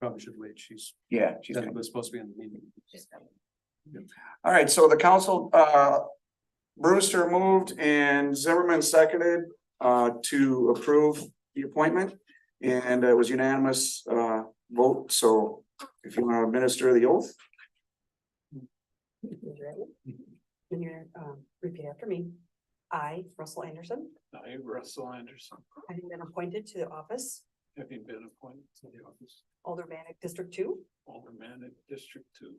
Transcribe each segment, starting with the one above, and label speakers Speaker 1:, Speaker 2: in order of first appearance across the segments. Speaker 1: probably should wait. She's,
Speaker 2: Yeah, she's
Speaker 1: that
Speaker 2: gonna-
Speaker 1: was supposed to be in the meeting.
Speaker 2: all right, so the council, uh, Brewster moved and Zimmerman seconded, uh, to approve the appointment. And it was unanimous, uh, vote, so if you want to administer the oath,
Speaker 3: And you're, um, repeat after me. I, Russell Anderson,
Speaker 1: I, Russell Anderson,
Speaker 3: having been appointed to the office,
Speaker 1: having been appointed to the office
Speaker 3: Alder Manic District Two,
Speaker 1: Alderman at District Two,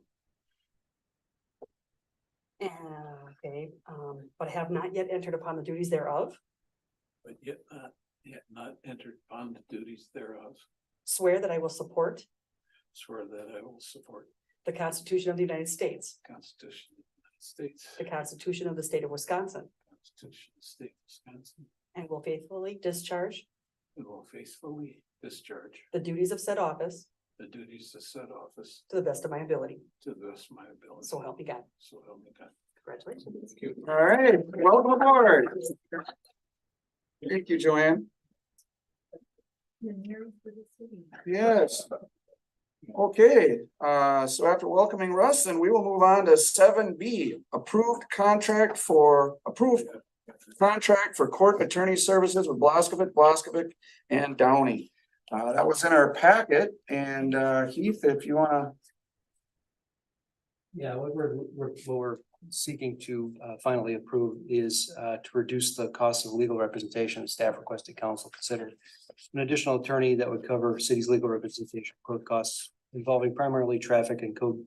Speaker 3: and, okay, um, but have not yet entered upon the duties thereof,
Speaker 1: but yet not, yet not entered upon the duties thereof.
Speaker 3: swear that I will support
Speaker 1: Swear that I will support
Speaker 3: the Constitution of the United States,
Speaker 1: the Constitution of the United States,
Speaker 3: the Constitution of the State of Wisconsin,
Speaker 1: Constitution of the State of Wisconsin,
Speaker 3: and will faithfully discharge
Speaker 1: and will faithfully discharge
Speaker 3: the duties of said office
Speaker 1: the duties of said office
Speaker 3: to the best of my ability.
Speaker 1: to the best of my ability.
Speaker 3: So help me God.
Speaker 1: So help me God.
Speaker 3: Congratulations.
Speaker 2: all right, welcome aboard. Thank you, Joanne. Yes. Okay, uh, so after welcoming Russ, then we will move on to seven B, approved contract for, approved contract for court attorney services with Blaskovic, Blaskovic and Downey. Uh, that was in our packet and, uh, Heath, if you wanna,
Speaker 4: Yeah, what we're, we're, what we're seeking to uh, finally approve is uh, to reduce the cost of legal representation. Staff requested council consider an additional attorney that would cover city's legal representation code costs involving primarily traffic and code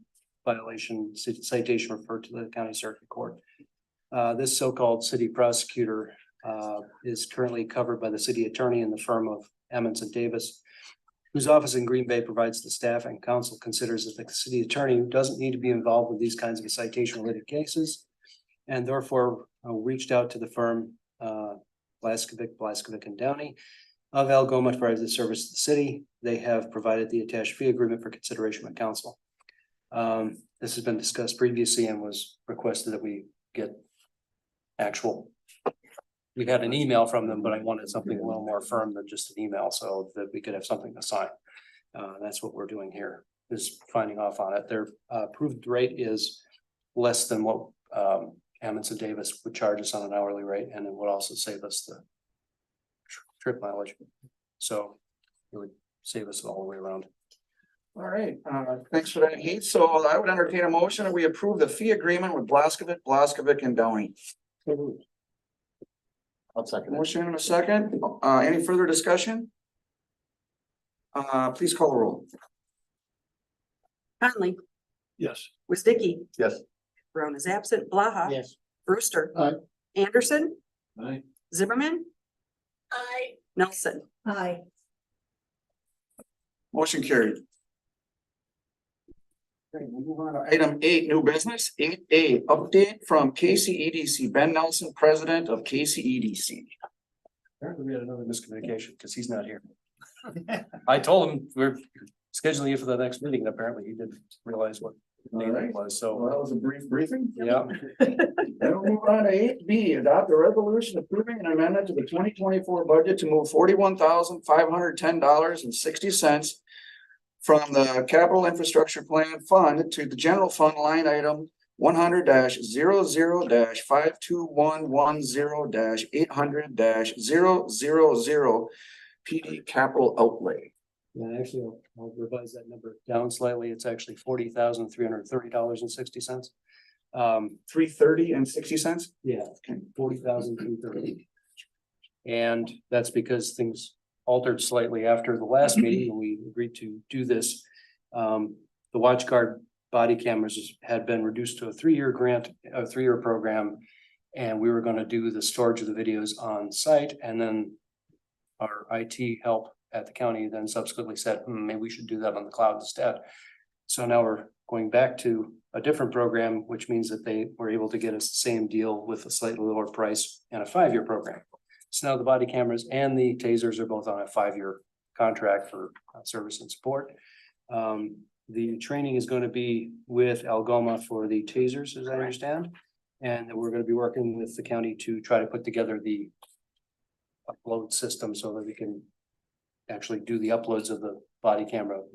Speaker 4: violation cit- citation referred to the county circuit court. Uh, This so-called city prosecutor uh, is currently covered by the city attorney in the firm of Emmons and Davis whose office in Green Bay provides the staff and council considers that the city attorney doesn't need to be involved with these kinds of citation related cases. And therefore, uh, reached out to the firm, uh, Blaskovic, Blaskovic and Downey of Algoma to provide the service to the city. They have provided the attached fee agreement for consideration by council. Um, this has been discussed previously and was requested that we get actual. We had an email from them, but I wanted something a little more firm than just an email so that we could have something to sign. Uh, that's what we're doing here, is finding off on it. Their uh, approved rate is less than what um Amundsen Davis would charge us on an hourly rate, and it would also save us the tr- trip mileage. So it would save us all the way around.
Speaker 2: all right, uh, thanks for that, Heath. So I would entertain a motion that we approve the fee agreement with Blaskovic, Blaskovic and Downey.
Speaker 5: I'll second it.
Speaker 2: Motion in a second. Uh, any further discussion? Uh, please call the roll.
Speaker 3: Conley,
Speaker 1: Yes.
Speaker 3: Wasdicki,
Speaker 5: Yes.
Speaker 3: Brown is absent, Blaha.
Speaker 4: Yes.
Speaker 3: Brewster.
Speaker 5: Aye.
Speaker 3: Anderson,
Speaker 1: Aye.
Speaker 3: Zimmerman. Aye. Nelson. Aye.
Speaker 2: Motion carried. Okay, we'll move on to Item eight, new business, eight A, update from KCEDC, Ben Nelson, president of E KCEDC.
Speaker 4: Apparently we had another miscommunication because he's not here. I told him we're scheduling you for the next meeting, and apparently he didn't realize what the name it was, so,
Speaker 2: that was a brief briefing.
Speaker 4: yeah.
Speaker 2: Then we'll move on to eight B, adopt a resolution approving an amendment to the twenty twenty-four budget to move forty-one thousand five hundred ten dollars and sixty cents from the capital infrastructure plan fund to the general fund line item one hundred 0 five two one one zero eight hundred 0 PD capital outlay.
Speaker 4: Yeah, actually, I'll- I'll revise that number down slightly. It's actually forty thousand, three hundred and thirty dollars and sixty cents. Um,
Speaker 2: Three thirty and sixty cents?
Speaker 4: yeah,
Speaker 2: Okay.
Speaker 4: forty thousand, three thirty. And that's because things altered slightly after the last meeting, when we agreed to do this. Um, the watch guard body cameras is- had been reduced to a three-year grant, a three-year program. And we were gonna do the storage of the videos on site and then our IT help at the county then subsequently said, hmm, maybe we should do that on the cloud instead. So now we're going back to a different program, which means that they were able to get us the same deal with a slightly lower price and a five-year program. So now the body cameras and the tasers are both on a five-year contract for uh, service and support. Um, the training is going to be with Algoma for the tasers, as I understand. And then we're going to be working with the county to try to put together the upload system so that we can actually do the uploads of the body camera